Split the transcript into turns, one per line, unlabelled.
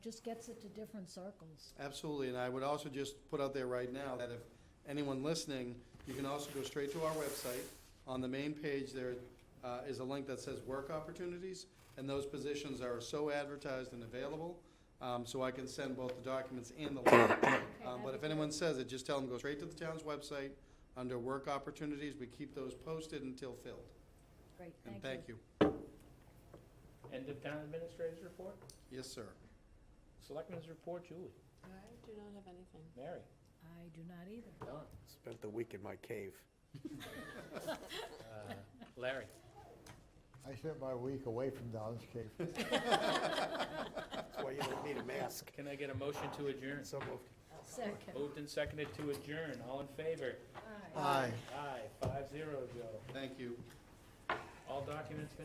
Just gets it to different circles.
Absolutely, and I would also just put out there right now that if anyone listening, you can also go straight to our website. On the main page, there uh, is a link that says Work Opportunities, and those positions are so advertised and available, um, so I can send both the documents and the link. Um, But if anyone says it, just tell them, go straight to the town's website, under Work Opportunities, we keep those posted until filled.
Great, thank you.
And thank you.
End of town administrator's report?
Yes, sir.
Selectmen's report, Julie.
I do not have anything.
Mary.
I do not either.
Don.
Spent the week in my cave.
Uh, Larry.
I spent my week away from Don's Cave.
That's why you don't need a mask.
Can I get a motion to adjourn?
So moved.
Second.
Moved and seconded to adjourn. All in favor?
Aye.
Aye.
Aye, five zero, Joe.
Thank you.
All documents